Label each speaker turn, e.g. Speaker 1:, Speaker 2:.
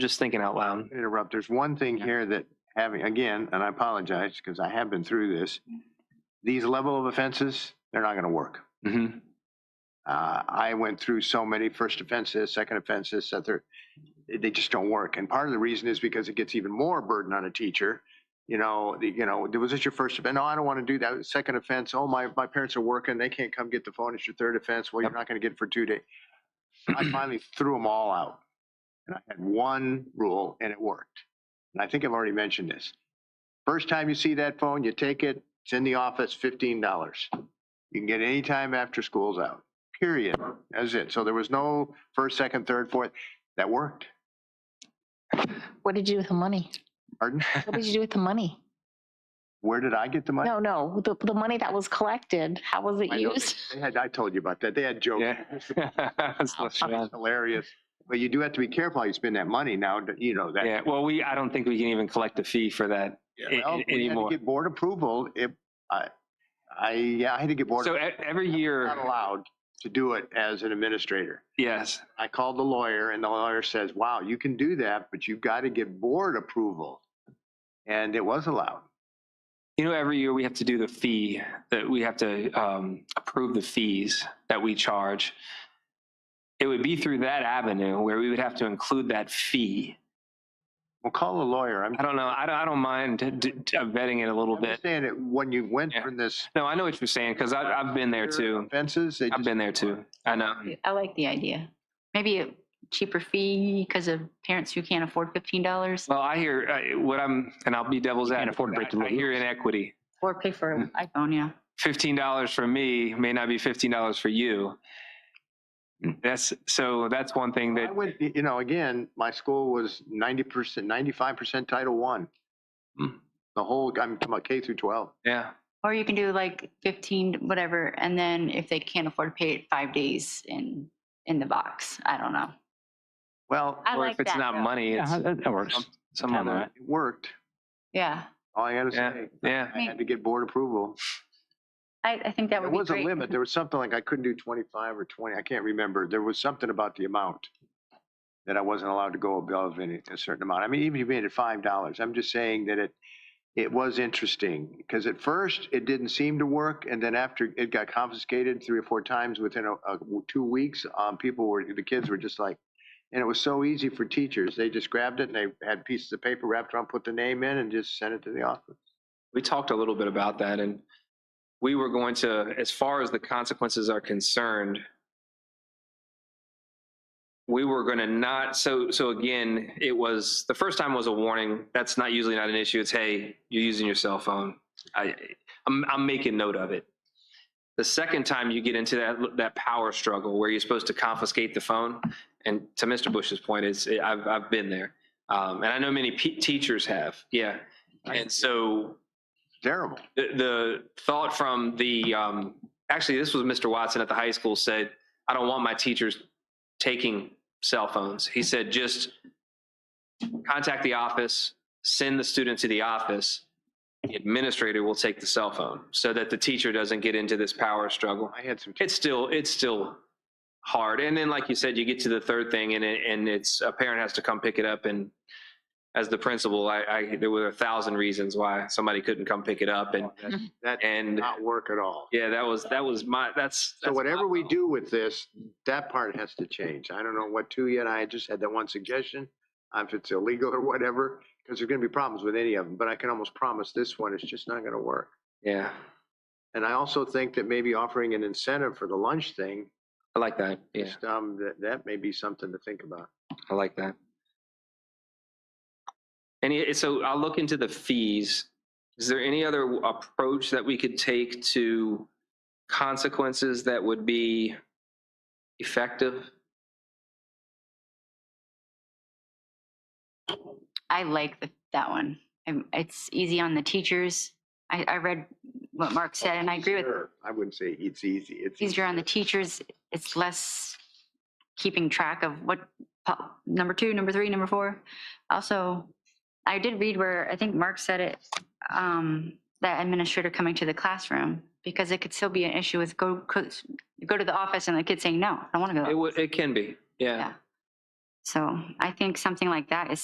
Speaker 1: just thinking out loud.
Speaker 2: interrupt. There's one thing
Speaker 1: Yeah.
Speaker 2: here that having, again, and I apologize because I have been through this. These level of offenses, they're not going to work.
Speaker 1: Mm-hmm.
Speaker 2: Uh, I went through so many first offenses, second offenses, that they're, they just don't work. And part of the reason is because it gets even more burden on a teacher. You know, the, you know, was this your first offense? No, I don't want to do that. Second offense. Oh, my, my parents are working. They can't come get the phone. It's your third offense. Well, you're
Speaker 1: Yep.
Speaker 2: not going to get it for two days. I finally threw them all out. And I had one rule and it worked. And I think I've already mentioned this. First time you see that phone, you take it. It's in the office, $15. You can get it anytime after school's out period. That's it. So there was no first, second, third, fourth. That worked.
Speaker 3: What did you do with the money?
Speaker 2: Pardon?
Speaker 3: What did you do with the money?
Speaker 2: Where did I get the money?
Speaker 3: No, no, the, the money that was collected, how was it
Speaker 2: I know
Speaker 3: used?
Speaker 2: They had, I told you about that. They had jokes.
Speaker 1: Yeah. That's not bad.
Speaker 2: It's Hilarious. But you do have to be careful how you spend that money now, that- you know, that.
Speaker 1: Yeah, well, we, I don't think we can even collect a fee for that. a- a-
Speaker 2: Well, we had to
Speaker 1: anymore.
Speaker 2: get board approval. It, I, I, yeah, I had to get board.
Speaker 1: So e- every year,
Speaker 2: Not allowed to do it as an administrator.
Speaker 1: yes,
Speaker 2: I called the lawyer and the lawyer says, wow, you can do that, but you've got to get board approval. And it was allowed.
Speaker 1: you know, every year we have to do the fee, that we have to um, approve the fees that we charge. It would be through that avenue where we would have to include that fee.
Speaker 2: Well, call the lawyer. I'm
Speaker 1: I don't know, I don't, I don't mind d- d- d- vetting it a little
Speaker 2: I'm
Speaker 1: bit.
Speaker 2: just saying it when you went
Speaker 1: Yeah.
Speaker 2: from this
Speaker 1: No, I know what you're saying, because I, I've been there too.
Speaker 2: fences, they
Speaker 1: I've
Speaker 2: just-
Speaker 1: been there too. I know.
Speaker 4: I like the idea. Maybe a cheaper fee because of parents who can't afford fifteen dollars
Speaker 1: Well, I hear uh, what I'm, and I'll be devil's advocate.
Speaker 5: afford to break the
Speaker 1: I- I hear
Speaker 5: rules.
Speaker 1: inequity.
Speaker 4: or pay for
Speaker 2: Mm.
Speaker 4: an iPhone, yeah.
Speaker 1: fifteen dollars for me may not be fifteen dollars for you.
Speaker 4: Hmm.
Speaker 1: That's so. That's one thing
Speaker 2: I
Speaker 1: that
Speaker 2: went, you know, again, my school was ninety percent, ninety-five percent Title One.
Speaker 1: Hmm.
Speaker 2: The whole, I'm talking about K through twelve.
Speaker 1: yeah.
Speaker 4: Or you can do like fifteen, whatever, and then if they can't afford to pay it, five days in, in the box. I don't know.
Speaker 2: Well,
Speaker 4: I
Speaker 1: or
Speaker 4: like
Speaker 1: if it's
Speaker 4: that,
Speaker 1: not
Speaker 4: though.
Speaker 1: money, it's
Speaker 5: Yeah, that that works.
Speaker 1: some, some other.
Speaker 2: it worked.
Speaker 4: Yeah,
Speaker 2: All I gotta
Speaker 1: Yeah,
Speaker 2: say,
Speaker 1: yeah.
Speaker 2: I had to get board approval.
Speaker 4: I, I think that
Speaker 2: There
Speaker 4: would be
Speaker 2: was a
Speaker 4: great.
Speaker 2: limit. There was something like I couldn't do twenty-five or twenty. I can't remember. There was something about the amount that I wasn't allowed to go above any, a certain amount. I mean, even if you made it five dollars, I'm just saying that it, it was interesting because at first it didn't seem to work. And then after it got confiscated three or four times within a, a, two weeks, um, people were, the kids were just like, and it was so easy for teachers. They just grabbed it and they had pieces of paper wrapped around, put the name in and just sent it to the office.
Speaker 1: We talked a little bit about that, and we were going to, as far as the consequences are concerned, we were going to not. So so again, it was the first time was a warning. That's not usually not an issue. It's hey, you're using your cell phone. I I'm, I'm making note of it. The second time you get into that that power struggle where you're supposed to confiscate the phone, and to Mr. Bush's point, is I've I've been there, um, and I know many pe teachers have. Yeah, and so
Speaker 2: Terrible.
Speaker 1: the, the thought from the um, actually this was Mr. Watson at the high school said, I don't want my teachers taking cell phones. He said just contact the office, send the student to the office. The administrator will take the cell phone so that the teacher doesn't get into this power struggle.
Speaker 2: I had some.
Speaker 1: It's still it's still hard. And then like you said, you get to the third thing and it, and it's a parent has to come pick it up and as the principal, I, I there were a thousand reasons why somebody couldn't come pick it up and
Speaker 2: That- That did
Speaker 1: and
Speaker 2: not work at all.
Speaker 1: yeah, that was that was my that's,
Speaker 2: So e
Speaker 1: that's
Speaker 2: whatever
Speaker 1: my
Speaker 2: we
Speaker 1: fault.
Speaker 2: do with this, that part has to change. I don't know what to yet. I just had that one suggestion. uh, If it's illegal or whatever, because there's gonna be problems with any of them, but I can almost promise this one, it's just not gonna work.
Speaker 1: Yeah,
Speaker 2: And I also think that maybe offering an incentive for the lunch thing,
Speaker 1: I like that. Yeah,
Speaker 2: just, um, that, that may be something to think about.
Speaker 1: I like that. And it, so I'll look into the fees. Is there any other approach that we could take to consequences that would be effective?
Speaker 4: I like the, that one. And It's easy on the teachers. I, I read what Mark said and I agree with
Speaker 2: Sure. I wouldn't say it's easy. It's.
Speaker 4: easier on the teachers. It's less keeping track of what po- number two, number three, number four. Also, I did read where I think Mark said it um, that administrator coming to the classroom because it could still be an issue with go go go to the office and the kid saying no, I don't want to go.
Speaker 1: It would. It can be. Yeah.
Speaker 4: Yeah. So I think something like that is